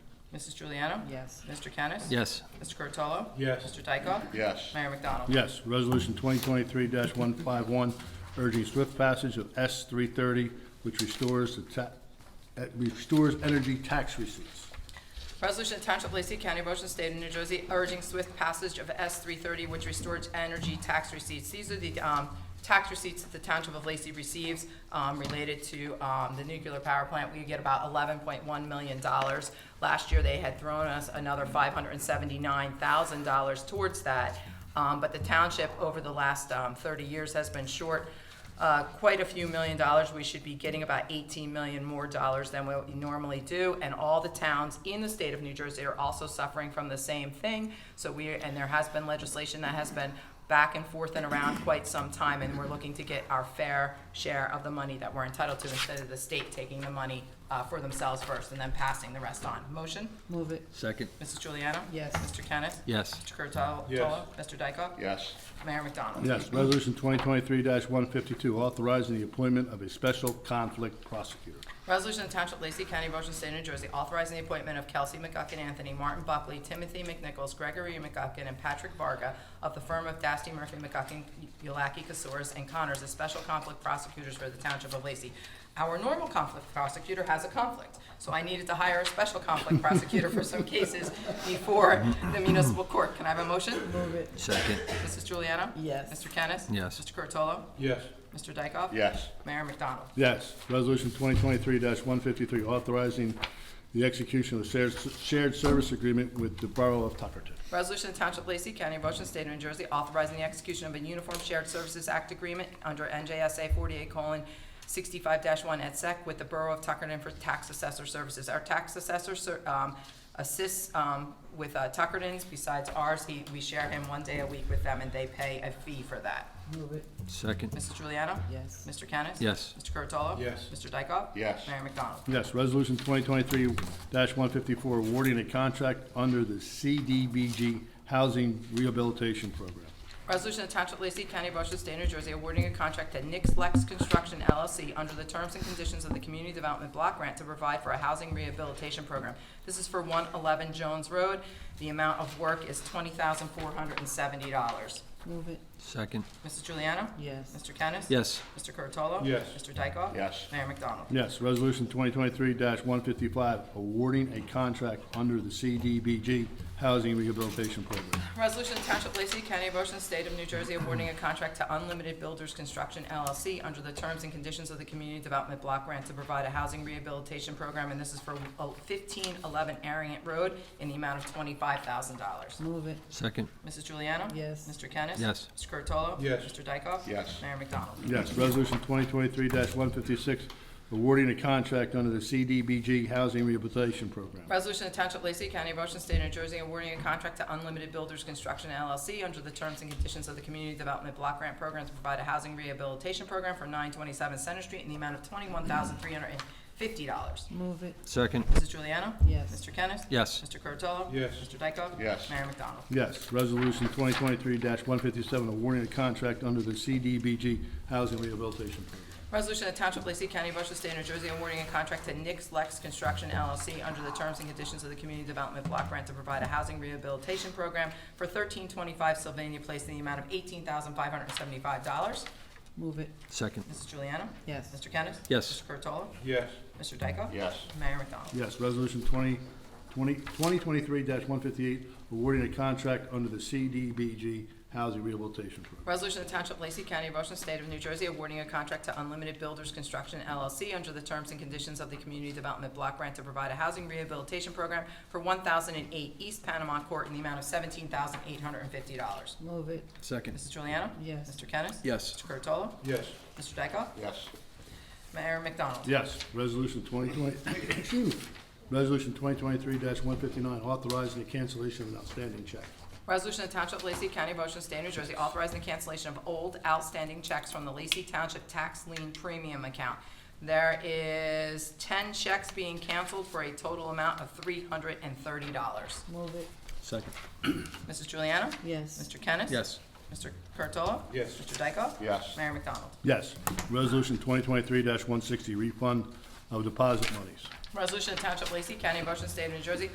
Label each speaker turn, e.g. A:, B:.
A: Mrs. Juliana?
B: Yes.
A: Mr. Kennis?
C: Yes.
A: Mr. Curatolo?
D: Yes.
A: Mr. Dykoff?
E: yes,
A: Mayor McDonald?
D: Yes, resolution twenty twenty-three one five one, urging swift passage of S three thirty, which restores the ta, uh, restores energy tax receipts.
A: Resolution to Township of Lacey County, Ocean State of New Jersey, urging swift passage of S three thirty, which restores energy tax receipts. These are the, um, tax receipts that the Township of Lacey receives, um, related to, um, the nuclear power plant. We get about eleven point one million dollars. Last year, they had thrown us another five hundred and seventy-nine thousand dollars towards that. Um, but the township, over the last, um, thirty years, has been short uh, quite a few million dollars. We should be getting about 18 million more dollars than what we normally do. And all the towns in the state of New Jersey are also suffering from the same thing. So we, and there has been legislation that has been back and forth and around quite some time. And we're looking to get our fair share of the money that we're entitled to instead of the state taking the money uh, for themselves first and then passing the rest on. Motion?
B: Move it.
C: Second.
A: Mrs. Juliana?
B: Yes.
A: Mr. Kennis?
C: Yes.
A: Mr. Curatolo?
D: Yes.
A: Mr. Dykoff?
E: yes,
A: Mayor McDonald?
D: Yes, resolution twenty twenty-three one fifty-two, authorizing the appointment of a special conflict prosecutor.
A: Resolution of Township of Lacey County, Ocean State, New Jersey, authorizing the appointment of Kelsey McGuckin Anthony, Martin Buckley, Timothy McNichols, Gregory McGuckin, and Patrick Varga of the firm of Dasty Murphy McGuckin, Yulaki, Casours, and Connors as special conflict prosecutors for the Township of Lacey. Our normal conflict prosecutor has a conflict, so I needed to hire a special conflict prosecutor for some cases before the municipal court. Can I have a motion?
B: Move it.
C: Second.
A: Mrs. Juliana?
B: Yes.
A: Mr. Kennis?
C: Yes.
A: Mr. Curatolo?
D: Yes.
A: Mr. Dykoff?
E: yes,
A: Mayor McDonald?
D: Yes, resolution twenty twenty-three one fifty-three, authorizing the execution of a shared, shared service agreement with the Borough of Tuckerton.
A: Resolution to Township of Lacey County, Ocean State of New Jersey, authorizing the execution of a Uniform Shared Services Act agreement under NJSA forty-eight sixty-five one et sec with the Borough of Tuckerton for tax assessor services. Our tax assessor, ser- um, assists, um, with, uh, Tuckerton's besides ours. He, we share him one day a week with them and they pay a fee for that.
B: Move it.
C: Second.
A: Mrs. Juliana?
B: Yes.
A: Mr. Kennis?
C: Yes.
A: Mr. Curatolo?
D: Yes.
A: Mr. Dykoff?
E: Yes.
A: Mayor McDonald?
D: Yes, resolution twenty twenty-three one fifty-four, awarding a contract under the CDBG Housing Rehabilitation Program.
A: Resolution of Township of Lacey County, Ocean State, New Jersey, awarding a contract to Nix Lex Construction LLC under the terms and conditions of the Community Development Block Grant to provide for a housing rehabilitation program. This is for one eleven Jones Road. The amount of work is twenty thousand four hundred and seventy dollars.
B: Move it.
C: Second.
A: Mrs. Juliana?
B: Yes.
A: Mr. Kennis?
C: Yes.
A: Mr. Curatolo?
D: Yes.
A: Mr. Dykoff?
E: Yes.
A: Mayor McDonald?
D: Yes, resolution twenty twenty-three one fifty-five, awarding a contract under the CDBG Housing Rehabilitation Program.
A: Resolution to Township of Lacey County, Ocean State of New Jersey, awarding a contract to Unlimited Builders Construction LLC under the terms and conditions of the Community Development Block Grant to provide a housing rehabilitation program, and this is for oh, fifteen eleven Ariant Road in the amount of twenty-five thousand dollars.
B: Move it.
C: Second.
A: Mrs. Juliana?
B: Yes.
A: Mr. Kennis?
C: Yes.
A: Mr. Curatolo?
D: Yes.
A: Mr. Dykoff?
E: Yes.
A: Mayor McDonald?
D: Yes, resolution twenty twenty-three one fifty-six, awarding a contract under the CDBG Housing Rehabilitation Program.
A: Resolution to Township of Lacey County, Ocean State of New Jersey, awarding a contract to Unlimited Builders Construction LLC under the terms and conditions of the Community Development Block Grant Program to provide a housing rehabilitation program for nine twenty-seven Center Street in the amount of twenty-one thousand three hundred and fifty dollars.
B: Move it.
C: Second.
A: Mrs. Juliana?
B: Yes.
A: Mr. Kennis?
C: Yes.
A: Mr. Curatolo? Yes. Mr. Dykoff?
E: Yes.
A: Mayor McDonald?
D: Yes, resolution twenty twenty-three one fifty-seven, awarding a contract under the CDBG Housing Rehabilitation Program.
A: Resolution of Township of Lacey County, Ocean State, New Jersey, awarding a contract to Nix Lex Construction LLC under the terms and conditions of the Community Development Block Grant to provide a housing rehabilitation program for thirteen twenty-five Sylvania Place in the amount of eighteen thousand five hundred and seventy-five dollars.
B: Move it.
C: Second.
A: Mrs. Juliana?
B: Yes.
A: Mr. Kennis?
C: Yes.
A: Mr. Curatolo?
D: Yes.
A: Mr. Dykoff?
E: yes,
A: Mayor McDonald?
D: Yes, resolution 20 20 2023 one fifty-eight, awarding a contract under the CDBG Housing Rehabilitation Program.
A: Resolution of Township of Lacey County, Ocean State of New Jersey, awarding a contract to Unlimited Builders Construction LLC under the terms and conditions of the Community Development Block Grant to provide a housing rehabilitation program for one thousand and eight East Panama Court in the amount of seventeen thousand eight hundred and fifty dollars.
B: Move it.
C: Second.
A: Mrs. Juliana?
B: Yes.
A: Mr. Kennis?
C: Yes.
A: Mr. Curatolo?
D: Yes.
A: Mr. Dykoff?
E: yes,
A: Mayor McDonald?
D: Yes, resolution 2020, excuse me, resolution 2023 one fifty-nine, authorizing the cancellation of an outstanding check.
A: Resolution of Township of Lacey County, Ocean State, New Jersey, authorizing the cancellation of old outstanding checks from the Lacey Township Tax Lien Premium Account. There is ten checks being canceled for a total amount of three hundred and thirty dollars.
B: Move it.
C: Second.
A: Mrs. Juliana?
B: Yes.
A: Mr. Kennis?
C: Yes.
A: Mr. Curatolo?
D: Yes.
A: Mr. Dykoff?
E: yes,
A: Mayor McDonald?
D: Yes, resolution 2023 one sixty, refund of deposit monies.
A: Resolution of Township of Lacey County, Ocean State, New Jersey,